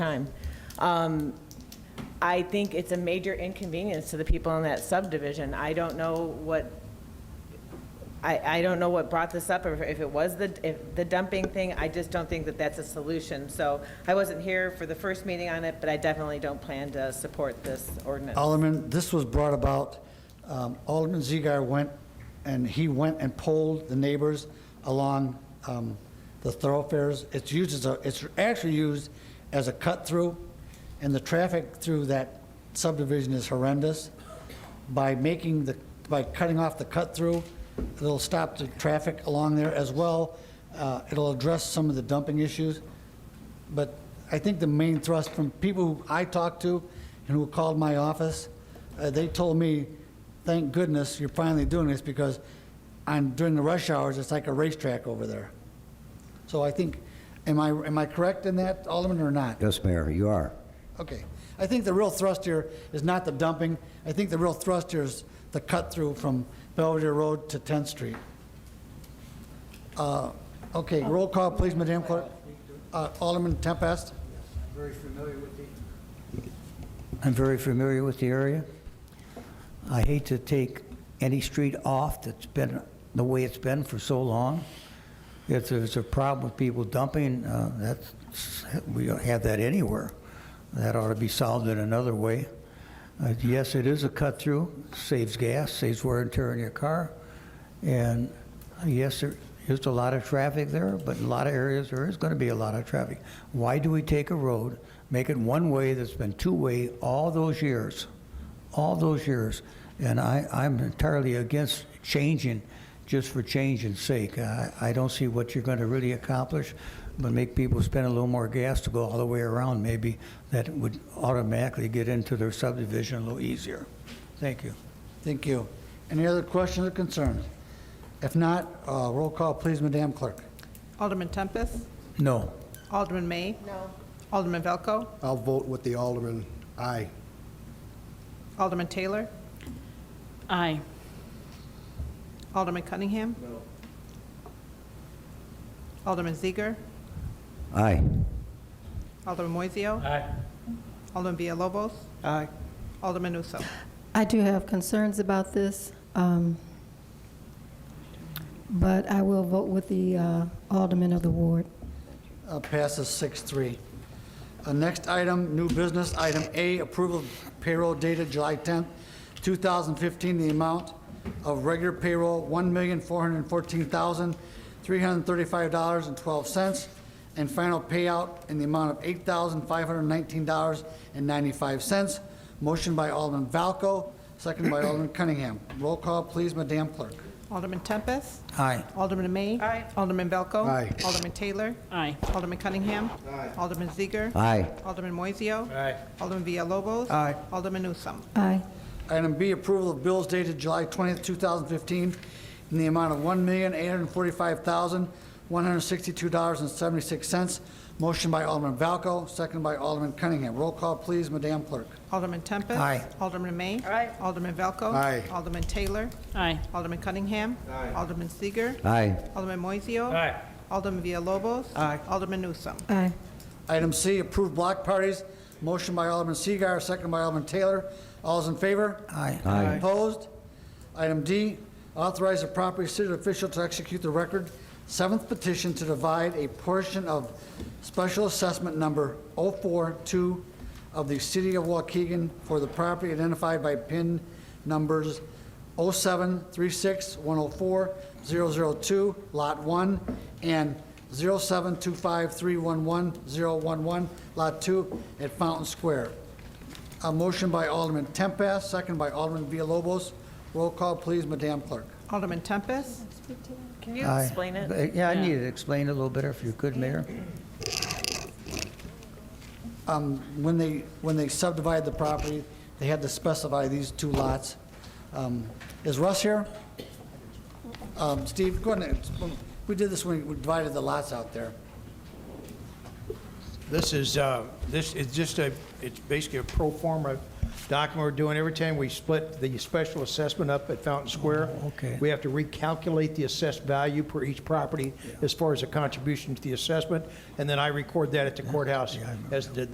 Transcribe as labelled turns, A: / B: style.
A: time. Um, I think it's a major inconvenience to the people in that subdivision. I don't know what, I, I don't know what brought this up, or if it was the, if the dumping thing, I just don't think that that's a solution. So I wasn't here for the first meeting on it, but I definitely don't plan to support this ordinance.
B: Alderman, this was brought about, um, Alderman Ziegler went, and he went and polled the neighbors along um, the thoroughfares. It's used as a, it's actually used as a cut-through, and the traffic through that subdivision is horrendous. By making the, by cutting off the cut-through, it'll stop the traffic along there as well. Uh, It'll address some of the dumping issues. But I think the main thrust from people who I talked to and who called my office, uh, they told me, thank goodness you're finally doing this because on, during the rush hours, it's like a racetrack over there. So I think, am I, am I correct in that, Alderman, or not?
C: Yes, Mayor, you are.
B: Okay. I think the real thrust here is not the dumping. I think the real thrust here is the cut-through from Belvedere Road to 10th Street. Uh, Okay, roll call, please, Madam Clerk. Uh, Alderman Tempest?
C: I'm very familiar with the area. I hate to take any street off that's been the way it's been for so long. If there's a problem with people dumping, uh, that's, we don't have that anywhere. That ought to be solved in another way. Uh, Yes, it is a cut-through, saves gas, saves wear and tear on your car. And uh, yes, there is a lot of traffic there, but in a lot of areas, there is going to be a lot of traffic. Why do we take a road, make it one-way that's been two-way all those years? All those years. And I, I'm entirely against changing just for changing's sake. I, I don't see what you're going to really accomplish, but make people spend a little more gas to go all the way around, maybe that would automatically get into their subdivision a little easier. Thank you.
B: Thank you. Any other questions or concerns? If not, uh, roll call, please, Madam Clerk.
D: Alderman Tempest,
C: No.
D: Alderman May. No. Alderman Velco,
E: I'll vote with the alderman. Aye.
D: Alderman Taylor,
F: Aye.
D: Alderman Cunningham. No. Alderman Ziegler,
C: Aye.
D: Alderman Moiseo. Aye. Alderman Villalobos. Aye. Alderman Newsome.
G: I do have concerns about this, um, but I will vote with the uh, alderman of the ward.
B: Uh, Passes 6-3. Uh, Next item, new business, item A, approval of payroll dated July 10th, 2015, the amount of regular payroll, $1,414,335.12, and final payout in the amount of $8,519.95. Motion by Alderman Valco, second by Alderman Cunningham. Roll call, please, Madam Clerk.
D: Alderman Tempest,
C: Aye.
D: Alderman May. Aye. Alderman Velco.
E: Aye.
D: Alderman Taylor,
F: Aye.
D: Alderman Cunningham. Aye. Alderman Ziegler.
C: Aye.
D: Alderman Moiseo. Aye. Alderman Villalobos.
C: Aye.
D: Alderman Newsome.
G: Aye.
B: Item B, approval of bills dated July 20th, 2015, in the amount of $1,845,162.76. Motion by Alderman Valco, second by Alderman Cunningham. Roll call, please, Madam Clerk.
D: Alderman Tempest.
C: Aye.
D: Alderman May. Aye. Alderman Velco.
E: Aye.
D: Alderman Taylor,
F: Aye.
D: Alderman Cunningham. Aye. Alderman Seager.
C: Aye.
D: Alderman Moiseo. Aye. Alderman Villalobos. Aye. Alderman Newsome.
G: Aye.
B: Item C, approved block parties. Motion by Alderman Seager, second by Alderman Taylor. All's in favor?
C: Aye.
B: Aye. Opposed? Item D, authorize a property city official to execute the record seventh petition to divide a portion of special assessment number 042 of the city of Waukegan for the property identified by PIN numbers 0736 104 002, Lot 1, and 0725 311 011, Lot 2, at Fountain Square. A motion by Alderman Tempest, second by Alderman Villalobos. Roll call, please, Madam Clerk.
D: Alderman Tempest,
A: Can you
C: Aye.
A: explain it?
C: But, Yeah, I need to explain it a little better if you could, Mayor.
B: Um, When they, when they subdivided the property, they had to specify these two lots. Um, Is Russ here? Um, Steve, go ahead. and explain. We did this when we divided the lots out there.
H: This is, uh, this is just a, it's basically a pro forma document we're doing every time we split the special assessment up at Fountain Square.
C: Oh, okay.
H: We have to recalculate the assessed value per each property as far as the contribution to the assessment, and then I record that at the courthouse as the